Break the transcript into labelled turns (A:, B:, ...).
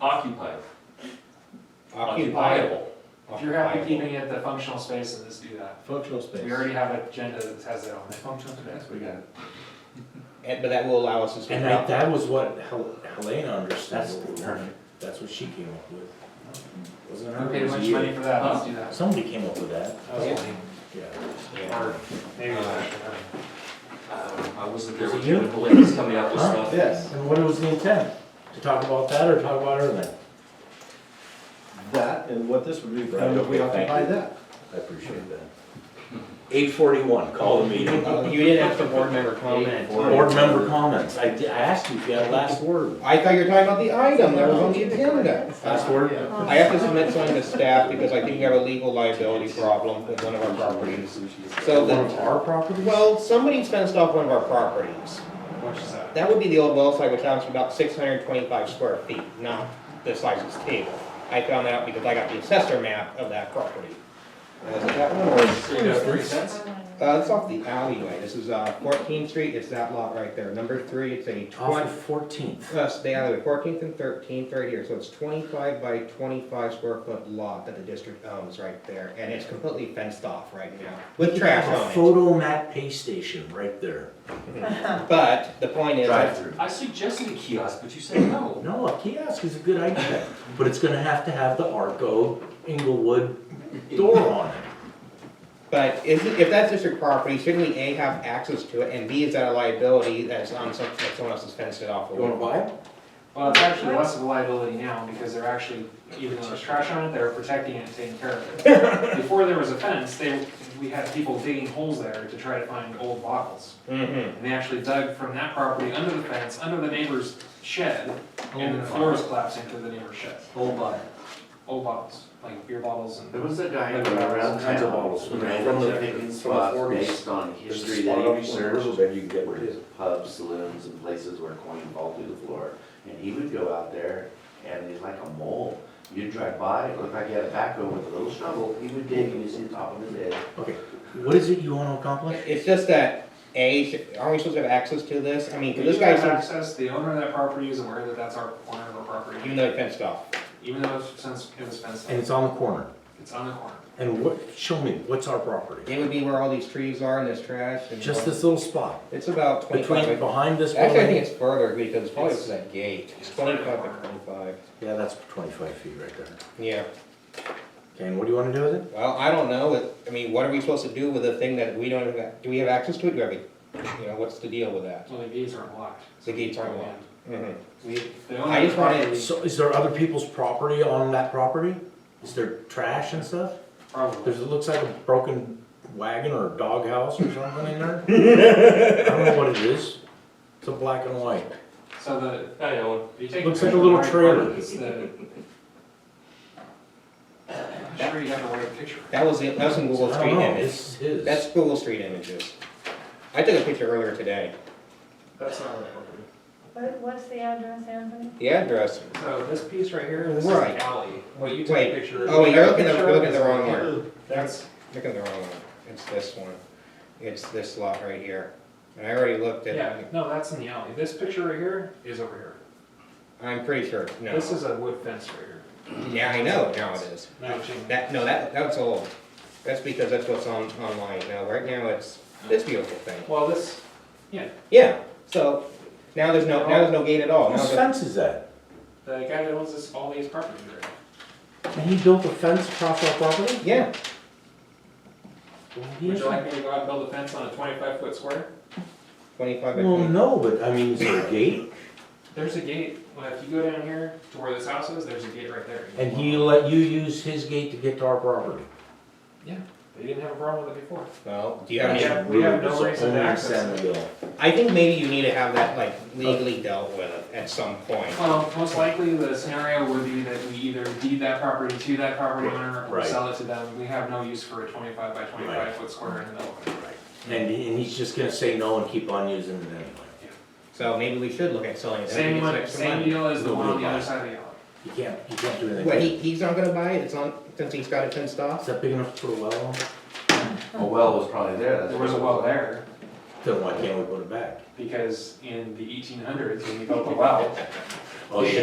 A: Occupied,
B: Occupiable.
A: occupiable. If you're happy keeping it the functional space, then just do that.
C: Functional space.
A: We already have an agenda that has that on it.
D: Functional space, we got it.
B: And, but that will allow us to speak
C: And that,
B: about.
C: that was what Hel- Helena understood.
D: That's perfect.
C: That's what she came up with. Wasn't
A: We
C: her, it
A: paid
C: was
A: much money
C: you.
A: for that, let's do that.
C: Somebody came up with that,
A: That was funny.
C: yeah.
A: Or maybe it was
B: Uh,
A: actually her.
E: Uh, I wasn't there
C: Was
E: with
C: it
E: you
C: you?
E: when Blaine was coming up with
C: Huh?
E: stuff.
D: Yes,
C: And what was the intent? To talk about that or talk about everything?
D: that and what this would be,
C: Brian.
D: and if we occupy
C: Thank you.
D: that.
C: I appreciate that. Eight forty-one, call the meeting.
B: Uh, You did have some board member comment.
C: Board member comments, I, di- I asked you if you had a last word.
B: I thought you were talking about the item that was on the agenda.
C: Last word?
B: I have to submit something to staff because I think we have a legal liability problem with one of our properties. So
C: One of
B: the,
C: our properties?
B: well, somebody fenced off one of our properties.
A: Which is that?
B: That would be the old well site, which counts for about six hundred and twenty-five square feet, not the size of this table. I found out because I got the assessor map of that property. And I was like, that one was-
A: Three dollars, thirty cents?
B: Uh, it's off the alleyway, this is, uh, Fourteenth Street, it's that lot right there, number three, it's a
C: Off
B: twenty,
C: of Fourteenth.
B: uh, the alleyway, Fourteenth and Thirteenth right here, so it's twenty-five by twenty-five square foot lot that the district owns right there, and it's completely fenced off right now, with trash
C: A
B: on it.
C: photo mat pay station right there.
B: But the point is,
D: Drive
B: that-
D: through.
E: I suggested a kiosk, but you said no.
C: No, a kiosk is a good idea, but it's gonna have to have the Arco Inglewood door on it.
B: but is it, if that's district property, shouldn't we, A, have access to it, and B, is that a liability that's on some, that someone else has fenced it off
C: You wanna
B: with?
C: buy it?
A: Well, it's actually less of a liability now because they're actually, even though there's trash on it, they're protecting it and taking care of it. Before there was a fence, they, we had people digging holes there to try to find old bottles.
B: Mm-hmm,
A: And they actually dug from that property under the fence, under the neighbor's shed, and the floor was collapsing through the neighbor's shed.
D: Whole lot.
A: Old bottles, like beer bottles and.
F: There was a guy around
A: Tons of
F: town,
C: bottles.
F: from
C: From
F: the picking spots based on history that he researched, where his pubs, saloons, and places were going to fall through the floor. And he would go out there, and he's like a mole. You'd drive by, it looked like he had a backhoe with a little shovel, he would dig, and you see the top of his head.
C: Okay, what is it you wanna accomplish?
B: it's just that, A, should- aren't we supposed to have access to this, I mean, 'cause
A: We
B: this
A: do have
B: guy's, in-
A: access, the owner of that property is aware that that's our corner of our property,
B: even though he fenced off.
A: even though it's since it was fenced
C: And
A: in,
C: it's on the corner.
A: it's on the corner.
C: And what, show me, what's our property?
B: It would be where all these trees are and this trash and.
C: Just this little spot,
B: It's about
C: between,
B: twenty-five. by-
C: behind this
B: Actually, I think
C: building?
B: it's further because it's probably
A: It's-
B: that gate. It's
A: it's
B: twenty-five
A: like-
B: by twenty-five.
C: Yeah, that's twenty-five feet right there.
B: Yeah,
C: Okay, and what do you wanna do with it?
B: well, I don't know. It- I mean, what are we supposed to do with a thing that we don't have, do we have access to it? Do we have, a- you know, what's the deal with that?
A: Well, the gates aren't locked.
B: The Mm-hmm. gates aren't locked.
A: We, the owner.
B: I just
A: of the
B: wanted-
A: property-
C: So is there other people's property on that property? Is there trash and stuff?
A: Probably.
C: There's, it looks like a broken wagon or a doghouse or something in there. I don't know what it is. It's a black and white.
A: So the,
E: I know.
A: if you take.
C: Looks like a little
A: picture of the
C: trailer.
A: right part, it's the- I'm sure you got the right picture.
B: That was, the- that was in Google
C: I
B: Street
C: don't know,
B: Images.
C: This is
B: That's
C: his.
B: Google Street Images. I took a picture earlier today.
A: That's not right property.
G: What, what's the address, Anthony?
B: The address.
A: So this piece right here, this is
B: Right.
A: the alley. What you took a
B: Wait.
A: picture of.
B: Oh, wait, you're looking at,
A: Picture
B: you're looking at
A: is
B: the wrong one.
A: That's,
B: Look at the wrong one, it's this one, it's this lot right here, and I already looked at
A: yeah,
B: it,
A: no, that's in the alley. This picture right here is over here.
B: I'm pretty sure, no,
A: This is a wood fence right here.
B: yeah, I know, now it is.
A: Matching.
B: That, no, that, that's old, that's because that's what's on, online now, right now it's this beautiful thing,
A: Well, this, yeah,
B: yeah, so, now there's no, now there's no gate at all, now
C: Whose
B: the,
C: fence is that?
A: the guy that owns this, all these properties right now.
C: And he built a fence across our property?
B: yeah,
A: Would you like me to go out and build a fence on a twenty-five foot square?
B: twenty-five by
C: Well,
B: twenty.
C: no, but I mean, is there a gate?
A: There's a gate, well, if you go down here to where this house is, there's a gate right there.
C: And he let you use his gate to get to our property?
A: Yeah, they didn't have a problem with it before.
B: Well, do you have any,
A: Yeah. we have no
C: It's
A: reason to
C: only
A: access
C: San Miguel.
B: I think maybe you need to have that like legally dealt with at some point,
A: Well, most likely the scenario would be that we either deed that property to that property owner or
C: Right.
A: sell it to them. We have no use for a twenty-five by
C: Right.
A: twenty-five foot square in the middle. of it.
C: And, he- and he's just gonna say no and keep on using it anyway.
B: so maybe we should look at selling it.
A: Same
B: Maybe
A: one,
B: it's extra
A: same
B: money.
A: deal as the one on
C: Nobody
A: the other
C: buys.
A: side of the alley.
C: You can't, you can't do anything.
B: What,
C: with
B: he,
C: it.
B: he's not gonna buy it, it's on, since he's got it fenced off?
C: Is that big enough to put a well on?
F: A well was probably there, that's.
A: There was a well there
C: Then why can't we put it back?
A: because in the eighteen hundreds, when we built the well,
C: Oh, yeah.